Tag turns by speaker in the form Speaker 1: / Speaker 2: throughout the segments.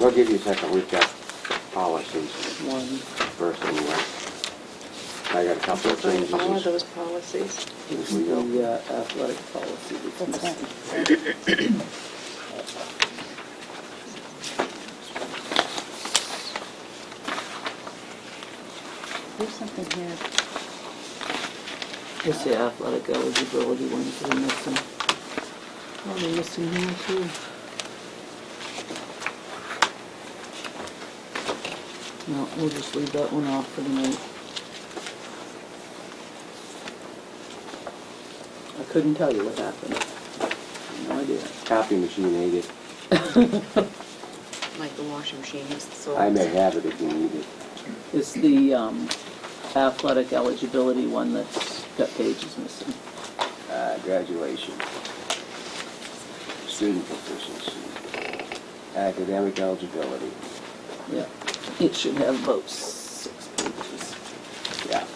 Speaker 1: We'll give you a second, we've got policies
Speaker 2: One,
Speaker 1: first anyway. I got a couple of
Speaker 3: Find
Speaker 1: changes
Speaker 3: all of
Speaker 1: as
Speaker 3: those policies.
Speaker 1: as
Speaker 2: is
Speaker 1: we go.
Speaker 2: the uh, athletic policy that's missing.
Speaker 4: There's something here.
Speaker 2: It's the athletic eligibility one that we're missing. Oh, they're missing here too. No, we'll just leave that one off for the minute. I couldn't tell you what happened. No idea.
Speaker 1: Copy machine ate it.
Speaker 3: Like the washing machine has the solar.
Speaker 1: I may have it if you need it.
Speaker 2: It's the um, athletic eligibility one that's got pages missing.
Speaker 1: Uh, graduation. Student proficiency. Academic eligibility.
Speaker 2: Yeah, it should have about six pages.
Speaker 1: Yeah.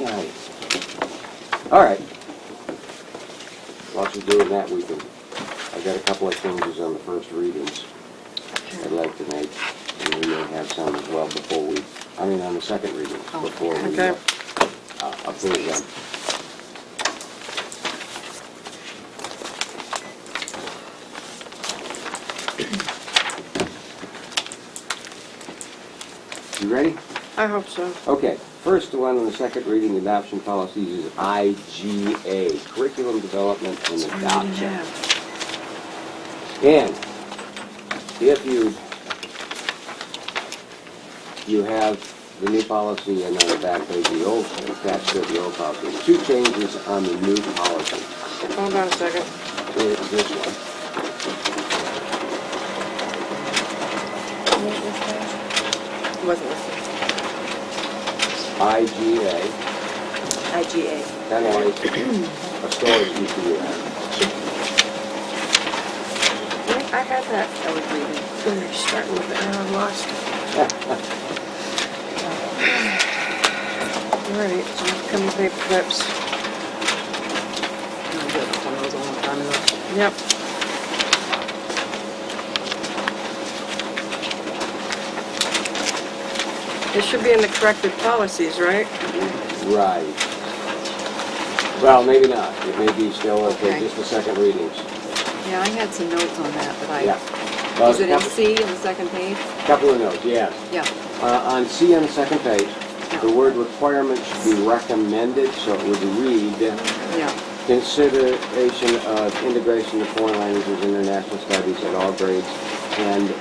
Speaker 1: Right. All right. While she's doing that, we can, I got a couple of changes on the first readings I'd like to make. And we may have some as well before we, I mean, on the second reading,
Speaker 3: Oh,
Speaker 1: before we
Speaker 3: okay.
Speaker 1: uh, uh, approve them. You ready?
Speaker 3: I hope so.
Speaker 1: Okay, first one on the second reading adoption policies is IGA, curriculum development and adoption. And if you, you have the new policy and on the back page, the old, attached to the old policy, two changes on the new policy.
Speaker 3: Hold on a second.
Speaker 1: It is this one.
Speaker 3: Wasn't listening.
Speaker 1: IGA,
Speaker 3: IGA.
Speaker 1: kind of like a storage EPA.
Speaker 3: I had that. I was reading. Let me start with it. Now I'm lost. All right, so I'm coming paper clips. Yep. This should be in the corrected policies, right?
Speaker 1: Right. Well, maybe not. It may be still, okay,
Speaker 3: Okay.
Speaker 1: just the second readings.
Speaker 3: Yeah, I had some notes on that, but
Speaker 1: Yeah.
Speaker 3: I,
Speaker 1: Well,
Speaker 3: is it in
Speaker 1: couple-
Speaker 3: C on the second page?
Speaker 1: Couple of notes, yes.
Speaker 3: Yeah.
Speaker 1: Uh, On C on the second page, the word requirement should be recommended, so it would read,
Speaker 3: Yeah,
Speaker 1: consideration of integration of foreign languages, international studies at all grades, and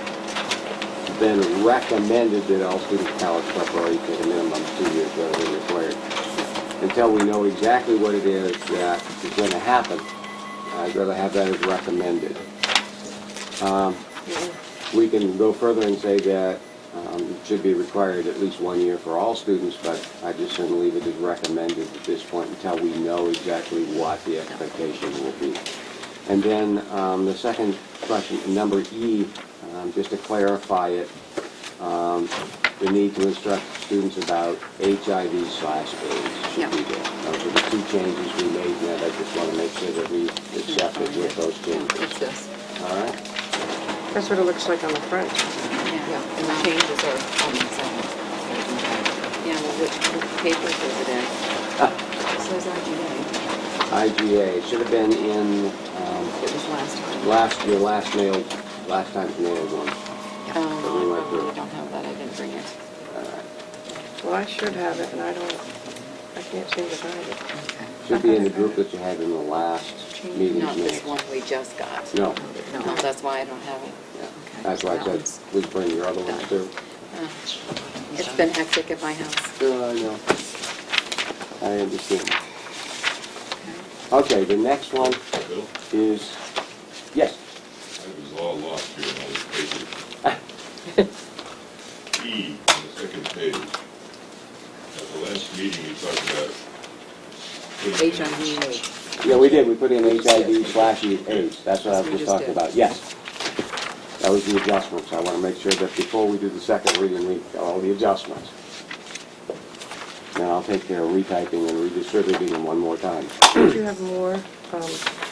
Speaker 1: then recommended that all students college preparatory to the minimum two years rather than required. Until we know exactly what it is that is going to happen, I'd rather have that as recommended. Um, we can go further and say that um, it should be required at least one year for all students, but I just shouldn't leave it as recommended at this point until we know exactly what the expectation will be. And then um, the second question, number E, um, just to clarify it, um, the need to instruct students about HIV slash AIDS should be there. Those are the two changes we made, and I just want to make sure that we accepted with those
Speaker 3: it's
Speaker 1: changes.
Speaker 3: this.
Speaker 1: All right?
Speaker 5: That's what it looks like on the front.
Speaker 3: Yeah, and the changes are on the second. Yeah, well, which which papers is it in?
Speaker 1: Uh,
Speaker 3: It says IGA.
Speaker 1: IGA, it should have been in, um,
Speaker 3: It was last time.
Speaker 1: last, your last mail, last time's mailed one.
Speaker 3: Oh, I probably don't have that, I didn't bring it.
Speaker 5: Well, I should have it, and I don't, I can't seem to find it.
Speaker 1: Should be in the group that you had in the last meeting's
Speaker 3: Not this
Speaker 1: minutes.
Speaker 3: one we just got.
Speaker 1: No.
Speaker 3: No, that's why I don't have it.
Speaker 1: Yeah. That's why I said, please bring your other ones too.
Speaker 3: Uh, It's been hectic at my house.
Speaker 1: Sure, I know. Uh, I understand. Okay, the next one
Speaker 6: Bill,
Speaker 1: is, yes,
Speaker 6: I was all lost here in all this paper. E, on the second page. At the last meeting, we talked about. putting in-
Speaker 3: HIV.
Speaker 1: yeah, we did, we put in HIV slash AIDS, that's what I was
Speaker 3: That's what we
Speaker 1: just
Speaker 3: just
Speaker 1: talking
Speaker 3: did.
Speaker 1: about, yes. That was the adjustments, I wanna make sure that before we do the second reading, we, got all the adjustments. Now I'll take care of retyping and redistributing them one more time.
Speaker 5: Do you have more um,